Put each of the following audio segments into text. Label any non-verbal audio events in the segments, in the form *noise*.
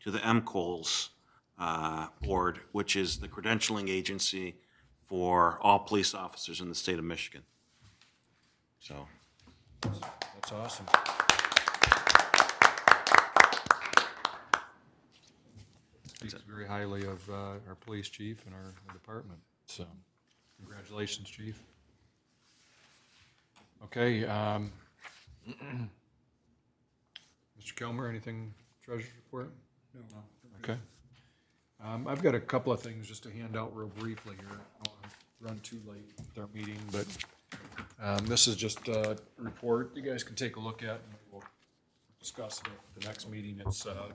to the MCOLS uh, Board, which is the credentialing agency for all police officers in the state of Michigan. So, That's awesome. Speaks very highly of uh, our police chief and our our department, so congratulations, chief. Okay. um, *clears throat* Mr. Kilmer, anything treasurer's report? No. Okay. Um, I've got a couple of things just to hand out real briefly here. I don't want to run too late with our meeting, but um, This is just a report you guys can take a look at, and we'll discuss it at the next meeting. It's uh,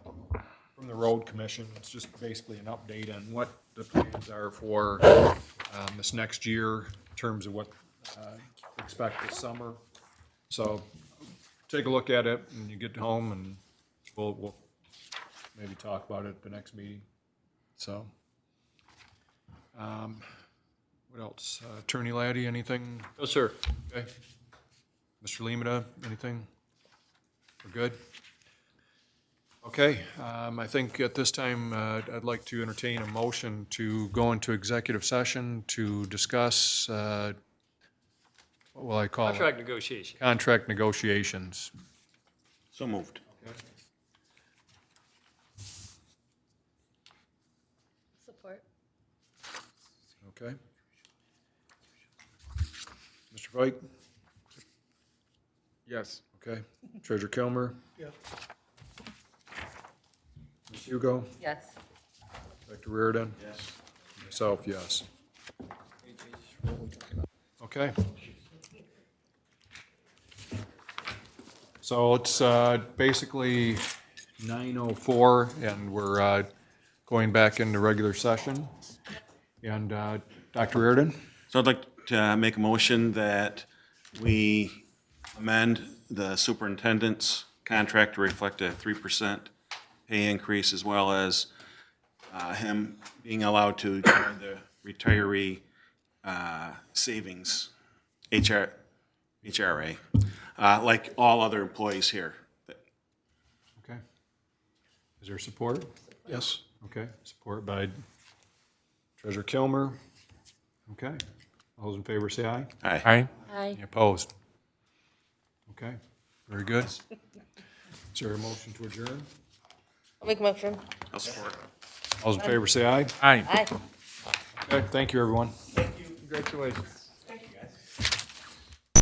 from the Road Commission. It's just basically an update on what the plans are for um, this next year in terms of what uh, to expect this summer. So take a look at it when you get home, and we'll, we'll maybe talk about it at the next meeting. So. um, What else? Uh, Attorney Laddie, anything No, sir. Okay. Mr. Limita, anything? We're good? Okay, um, I think at this time, uh, I'd like to entertain a motion to go into executive session to discuss, uh, what will I call it? Contract negotiation. Contract negotiations. so moved. Support. Okay. Mr. Fike? Yes. Okay. Treasurer Kilmer? Yeah. Ms. Hugo? Yes. Dr. Reardon? Yes. Myself, yes. Okay. So it's uh, basically 9:04, and we're uh, going back into regular session. And uh, Dr. Reardon? So I'd like to make a motion that we amend the superintendent's contract to reflect a three percent pay increase as well as uh, him being allowed to join the retiree uh, savings, HR, HRA, uh, like all other employees here. Okay. Is there support? Yes. Okay, support by Treasurer Kilmer. Okay. All those in favor, say aye. Aye. Aye. Any Opposed? Okay, very good. Is there a motion to adjourn? I'll make a motion. I'll support. All those in favor, say aye. Aye. Okay, thank you, everyone. Congratulations.